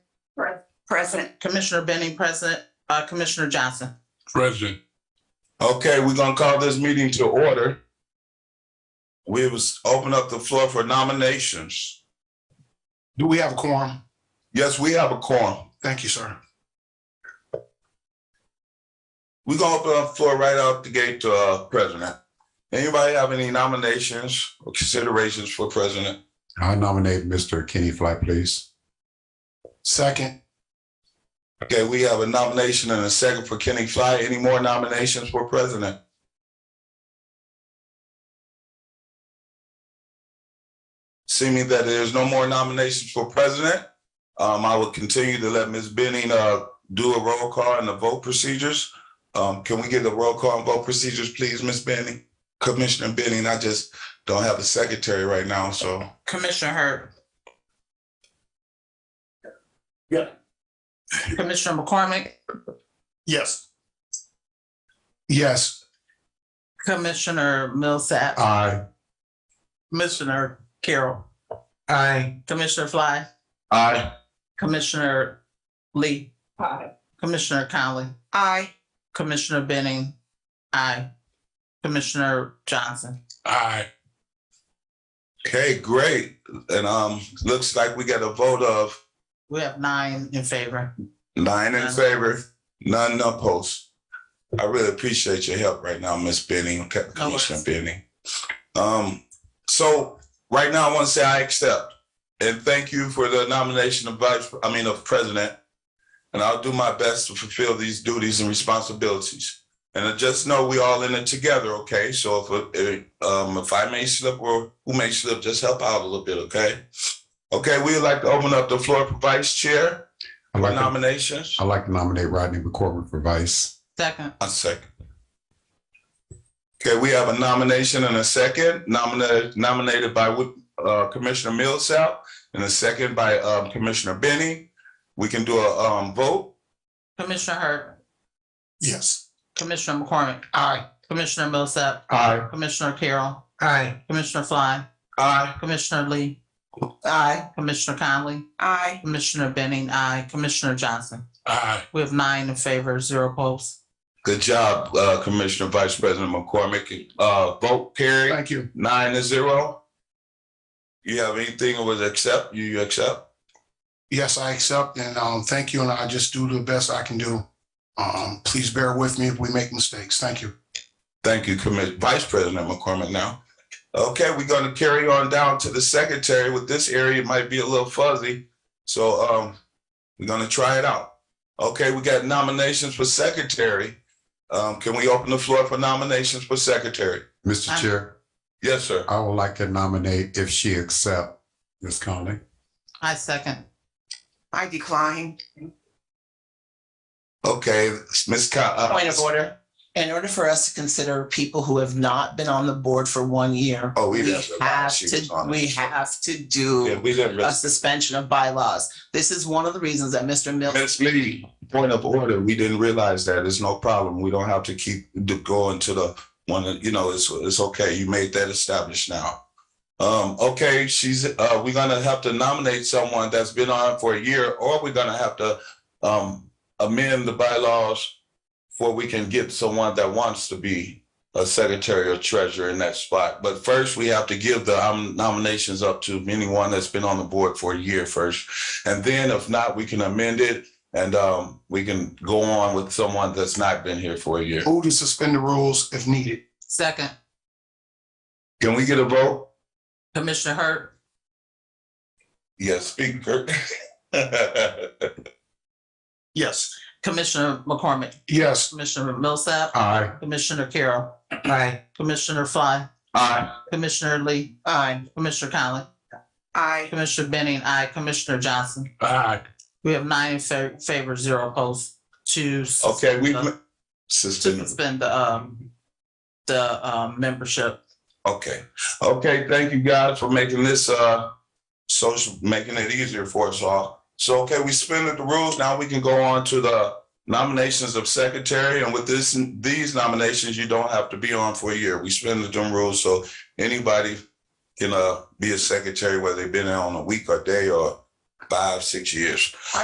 Present. Commissioner Benning, present. Uh, Commissioner Johnson. President, Okay, we're gonna call this meeting to order. We was open up the floor for nominations. Do we have a quorum? Yes, we have a quorum. Thank you, sir. We're gonna open up the floor right out the gate to uh president. Anybody have any nominations or considerations for president? I nominate Mr. Kenny Fly, please. Second, Okay, we have a nomination and a second for Kenny Fly. Any more nominations for president? Seeming that there's no more nominations for president, um, I will continue to let Ms. Benning, uh, do a roll call and the vote procedures. Um, can we get the roll call and vote procedures, please, Ms. Benning? Commissioner Benning, I just don't have a secretary right now, so. Commissioner Hurd. Yeah. Commissioner McCormick, yes. Yes, Commissioner Millsap, Aye. Commissioner Carroll. Aye. Commissioner Fly, Aye. Commissioner Lee. Aye. Commissioner Conley. Aye. Commissioner Benning. Aye. Commissioner Johnson. aye. Okay, great. And, um, looks like we got a vote of We have nine in favor. Nine in favor, none opposed. I really appreciate your help right now, Miss Benning, okay, No worries. Commissioner Benning. Um, so right now, I want to say I accept and thank you for the nomination of vice, I mean, of president. And I'll do my best to fulfill these duties and responsibilities. And just know we all in it together, okay? So if, if, um, if I may slip or who may slip, just help out a little bit, okay? Okay, we'd like to open up the floor for vice chair I'd for like, to- nominations. I'd like to nominate Rodney McCormick for vice. Second, A second. Okay, we have a nomination and a second, nominated, nominated by uh, Commissioner Millsap and a second by um, Commissioner Benny. We can do a um, vote. Commissioner Hurd, yes. Commissioner McCormick, Aye. Commissioner Millsap, Aye. Commissioner Carroll, Aye. Commissioner Fly, Aye. Commissioner Lee, Aye. Commissioner Conley, Aye. Commissioner Benning, aye. Commissioner Johnson. Aye. We have nine in favor, zero opposed. Good job, uh, Commissioner Vice President McCormick. Uh, Vote carried, Thank you. nine to zero. You have anything or was accept, you you accept? Yes, I accept and um, thank you, and I just do the best I can do. Um, please bear with me if we make mistakes. Thank you. Thank you, Commissioner, Vice President McCormick now. Okay, we're gonna carry on down to the secretary with this area, it might be a little fuzzy, so, um, we're gonna try it out. Okay, we got nominations for secretary. Um, can we open the floor for nominations for secretary? Mr. Aye. Chair, Yes, sir. I would like to nominate if she accept, Ms. Conley. I second. I decline. Okay, Ms. Co- uh, Point of order. In order for us to consider people who have not been on the board for one year, Oh, we we didn't. have to, we have to Yeah, do we didn't. a suspension of bylaws. This is one of the reasons that Mr. Mills, Ms. Lee, point of order, we didn't realize that. It's no problem. We don't have to keep the- going to the one, that- you know, it's, it's okay. You made that established now. Um, okay, she's, uh, we're gonna have to nominate someone that's been on for a year, or we're gonna have to, um, amend the bylaws before we can get someone that wants to be a secretary or treasurer in that spot. But first, we have to give the um, nominations up to anyone that's been on the board for a year first. And then if not, we can amend it and um, we can go on with someone that's not been here for a year. move to suspend the rules if needed. Second, Can we get a vote? Commissioner Hurd, Yes, speak, Kirk. Yes. Commissioner McCormick, Yes. Commissioner Millsap, Aye. Commissioner Carroll, Aye. Commissioner Fly, Aye. Commissioner Lee, Aye. Commissioner Conley, Aye. Commissioner Benning, aye. Commissioner Johnson. Aye. We have nine in fa- favor, zero opposed to s- Okay, we to suspend. suspend the, um, the, um, membership. Okay, okay, thank you guys for making this uh social, making it easier for us all. So, okay, we suspended the rules. Now we can go on to the nominations of secretary. And with this, these nominations, you don't have to be on for a year. We suspended them rules, so anybody can uh be a secretary, whether they've been on a week or day or five, six years.